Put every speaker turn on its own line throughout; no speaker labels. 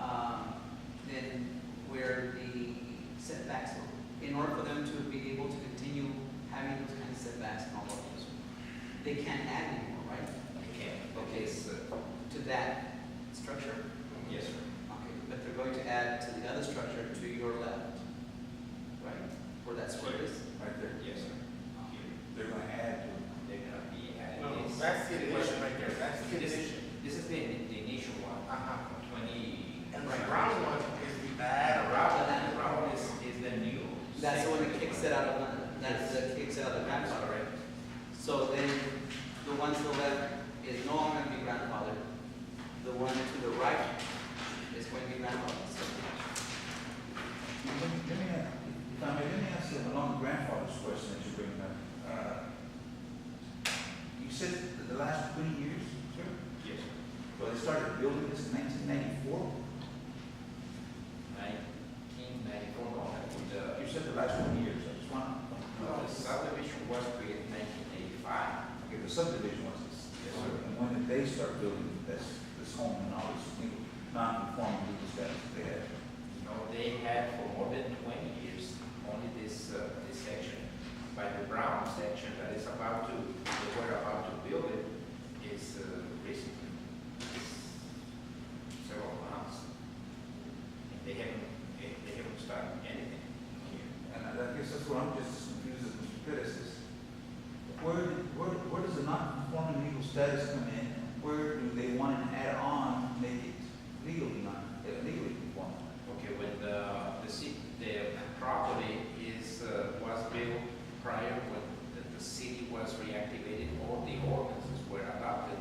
Um, structure?
Yes, sir.
Okay, but they're going to add to the other structure to your left, right? Where that square is?
right there.
Yes, sir.
They're gonna add to it.
They're gonna be adding.
No,
this-
that's the addition right there, that's the
This,
addition.
this is the, the initial one,
Uh-huh.
twenty.
And the brown one is the bad, or
The
brown,
brown is, is the new.
That's the one that
second
kicks
one.
it out of, the- that's the kicks it out of the grandfather, right? So then, the one to the left is no longer going to be grandfathered. The one to the right is going to be grandfathered. So-
Let me, let me, ask- if I may, let me ask you along grandfather's question that you bring up. Uh, You said that the last twenty years, sir?
Yes, sir.
Well, they started building this in nineteen ninety-four?
Nineteen ninety-four,
Uh, You said the last twenty years, I just want to.
the subdivision was created in nineteen eighty-five.
Okay, the subdivision was this.
Yes, sir.
And when did they start building this, this home and all this, you know, non-conforming legal status that they had?
You know, they had for more than twenty years, only this, uh, this section. By the brown section that is about to, they were about to build it, is, uh, recent, it's several months. And they haven't, they they haven't started anything here.
And I guess that's what I'm just as confused as Mr. Pettis is. Where, where, where does the non-conforming legal status come in? Where do they want to add on, make it legally non, uh, legally conforming?
Okay, when the, the ci- the property is, uh, was built prior when the, the city was reactivated, all the ordinances were adopted,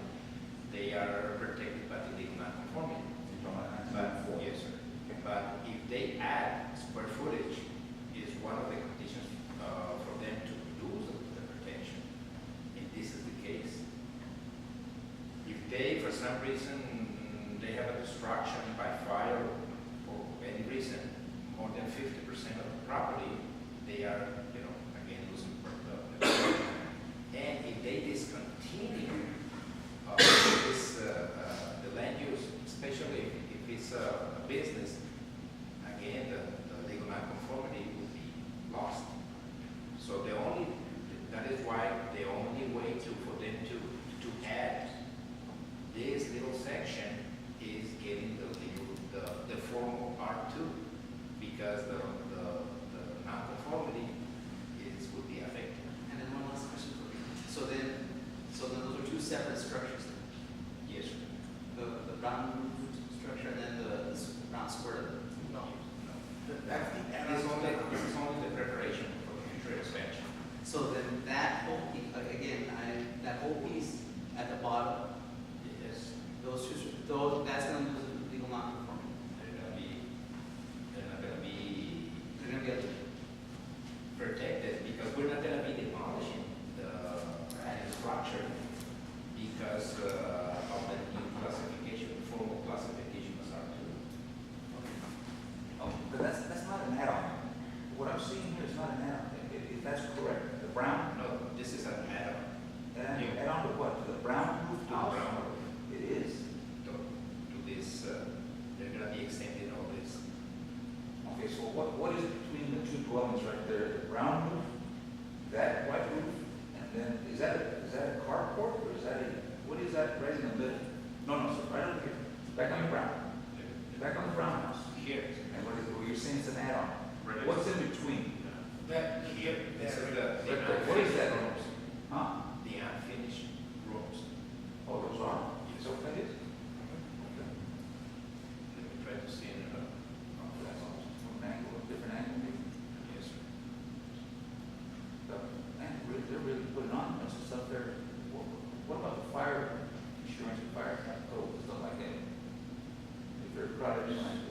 they are protected by the legal non-conformity.
You're talking about
But,
1994.
yes, sir, but if they add square footage, is one of the conditions, uh, for them to lose the protection, and this is the case. If they, for some reason, they have a destruction by fire or any reason, more than fifty percent of the property, they are, you know, again, losing per- the- the- And if they discontinue, uh, this, uh, uh, the land use, especially if- if it's a a business, again, the, the legal nonconformity will be lost. So the only, that is why the only way to, for them to, to add this little section is getting the legal, the, the formal R two, because the, the, the nonconformity is, will be affected.
And then one last question for you. So then, so then those are two separate structures,
Yes, sir.
the, the brown structure and then the, the s- brown square.
No. No.
that's the add-on.
It's only, it's only the preparation for the future expansion.
So then that whole, piece- again, I, that whole piece at the bottom
Yes,
Those two, those, that's gonna lose the legal non-conformity.
they're gonna be, they're not gonna be
They're gonna get,
protected because we're not gonna be demolishing the added structure because uh, of the new classification, formal classification as R two.
Oh, But that's, that's not an add-on. What I'm seeing here is not an add-on, if, if- if that's correct. The brown,
No, this is an add-on
an add-
Yeah.
add-on to what? To the brown
to
roof
the
house?
ground
It is.
to, to this, uh, they're gonna be extending all this.
Okay, so what, what is between the two dwellings right there, the brown roof, that white roof, and then, is that, is that a carport, or is that a, what is that right in the middle? No, no, sir, right over here, back on the brown, back on the brown house,
uh, Here.
and what is, what you're saying is an add-on. What's in between?
That here,
This is the.
Right there. What is that? Huh?
The unfinished rooms.
Oh, those are,
Yes.
so that is?
Let me try to see in another.
Oh, that's from an angle, a different angle, maybe.
Yes, sir.
But, Man, really- they're really putting on a bunch of stuff there. What, what about the fire insurance, and fire cap code, stuff like that? If they're proud of doing
um,
like